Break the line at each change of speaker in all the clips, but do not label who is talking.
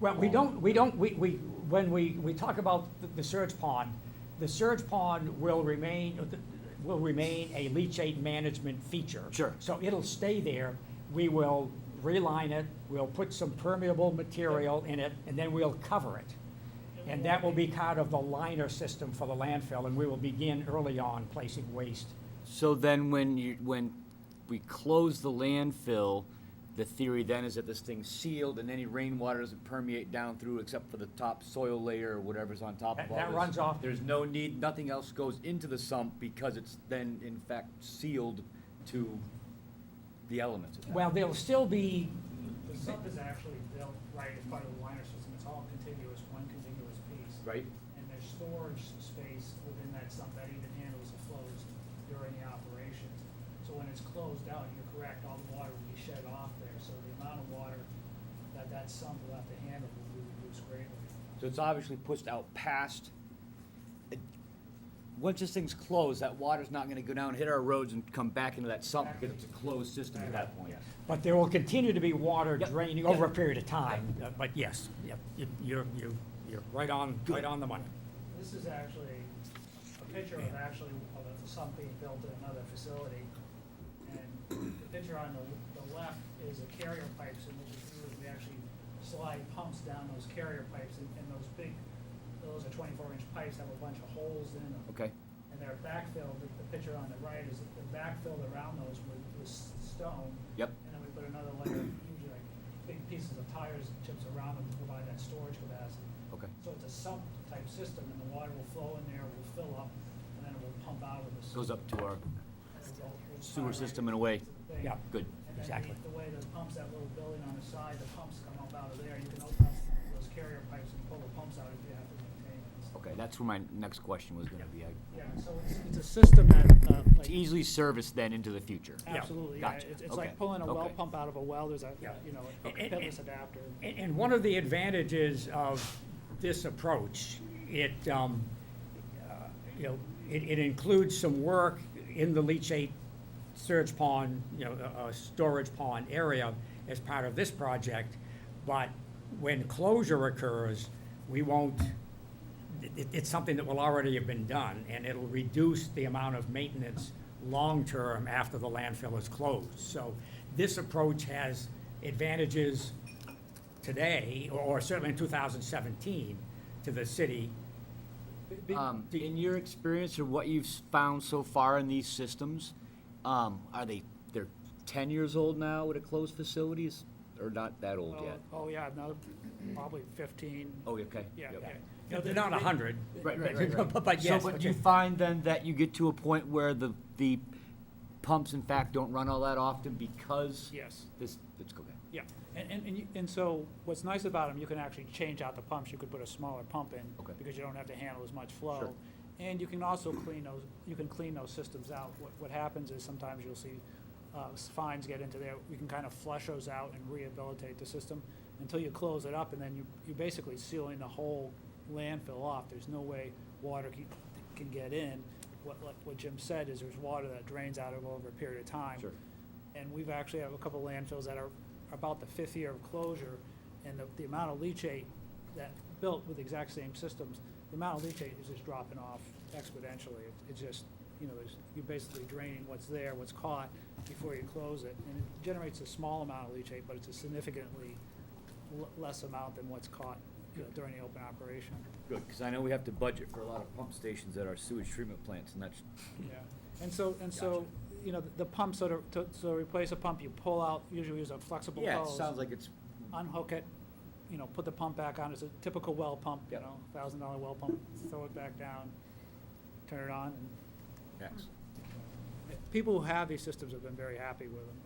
Well, we don't, we don't, we, we, when we, we talk about the- the surge pond, the surge pond will remain, uh, will remain a leachate management feature.
Sure.
So it'll stay there. We will reline it, we'll put some permeable material in it, and then we'll cover it. And that will be part of the liner system for the landfill, and we will begin early on placing waste.
So then when you, when we close the landfill, the theory then is that this thing's sealed and any rainwater doesn't permeate down through except for the top soil layer or whatever's on top of
That-
all
that
this.
runs off-
There's no need, nothing else goes into the sump because it's then in fact sealed to the elements. of that.
Well, there'll still be,
The sump is actually built right as part of the liner system, it's all contiguous, one contiguous piece.
Right?
And there's storage space within that sump that even handles the flows during the operation. So when it's closed out, you're correct, all the water will be shed off there, so the amount of water that that sump will have to handle will be reduced greatly.
So it's obviously pushed out past. it- Once this thing's closed, that water's not gonna go down, hit our roads and come back into that sump because it's a closed system at that point.
Yes.
but there will continue to be water
Yep,
draining
yep.
over a period of time. Uh, But yes, yep, you- you're, you're, you're right on, right on the money.
This is actually a picture of actually of a sump being built in another facility. And the picture on the, the left is the carrier pipes, and what we do is we actually slide pumps down those carrier pipes, and, and those big, those are twenty-four inch pipes have a bunch of holes in them.
Okay,
And they're backfilled, the, the picture on the right is they're backfilled around those with, with s- stone.
Yep.
And then we put another layer, of usually like big pieces of tires, and chips around them to provide that storage capacity.
okay.
So it's a sump type system and the water will flow in there, will fill up, and then it will pump out of this.
Goes up to our sewer
Right.
system in a way.
Thing.
Yeah.
Good.
And then
exactly.
the- The way those pumps, that little building on the side, the pumps come up out of there, you can open up those carrier pipes and pull the pumps out if you have to maintain it.
Okay, that's where my next question was gonna be. I-
Yeah, so it's, it's a system that, uh,
It's
like,
easily serviced then into the future.
Yeah,
absolutely, yeah,
gotcha,
it's, it's like
okay,
pulling a well
okay.
pump out of a well, there's a,
Yeah.
you know, a
Okay.
pitless adapter.
And, and one of the advantages of this approach, it, um, uh, you know, it, it includes some work in the leachate surge pond, you know, uh, uh, storage pond area as part of this project. But when closure occurs, we won't, it, it's something that will already have been done, and it'll reduce the amount of maintenance long-term after the landfill is closed. So this approach has advantages today, or certainly in 2017, to the city. Be-
Um,
do-
in your experience or what you've s- found so far in these systems, um, are they, they're ten years old now at a closed facilities or not that old
Oh,
yet?
Oh, yeah, another, probably fifteen,
Oh, okay.
yeah,
Yep.
yeah.
No, they're not 100.
Right, right, right, right.
But- But yes.
So, but
but
you
they-
find then that you get to a point where the, the pumps in fact don't run all that often because
Yes.
this, it's okay.
Yeah, and, and, and you- and so what's nice about them, you can actually change out the pumps, you could put a smaller pump in.
Okay.
Because you don't have to handle as much
Sure.
flow. And you can also clean those, you can clean those systems out. What, what happens is sometimes you'll see, uh, s- fines get into there, we can kind of flush those out and rehabilitate the system until you close it up, and then you, you're basically sealing the whole landfill off. There's no way water can, can get in. What, like what Jim said is there's water that drains out of over a period of time.
Sure.
And we've actually have a couple landfills that are about the fifth year of closure, and the, the amount of leachate that built with the exact same systems, the amount of leachate is just dropping off exponentially. It- It's just, you know, there's- you're basically draining what's there, what's caught, before you close it. And it generates a small amount of leachate, but it's a significantly l- less amount than what's caught, you know, during the open operation.
Good, because I know we have to budget for a lot of pump stations at our sewage treatment plants and that's,
Yeah, and so, and so, you know, the pump, so to, to, so to replace a pump, you pull out, usually use a flexible hose.
yeah, it sounds like it's
unhook it, you know, put the pump back on, it's a typical well pump, you
Yep.
know, thousand dollar well pump, throw it back down, turn it on, and
X.
people who have these systems have been very happy with them,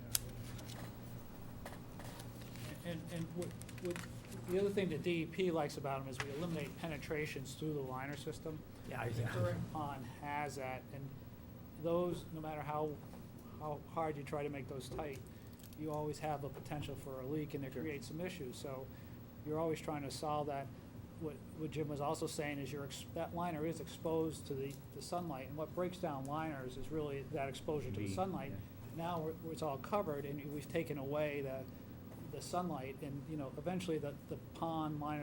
you know. And, and what, what, the other thing that DEP likes about them is we eliminate penetrations through the liner system.
Yeah,
The
yeah.
current pond has that, and those, no matter how, how hard you try to make those tight, you always have a potential for a leak, and it creates some issues, so you're always trying to solve that. What, what Jim was also saying is your, that liner is exposed to the, the sunlight, and what breaks down liners is really that exposure to the
UV,
sunlight. Now, we're- it's all covered, and we've taken away the, the sunlight and, you know, eventually the, the pond line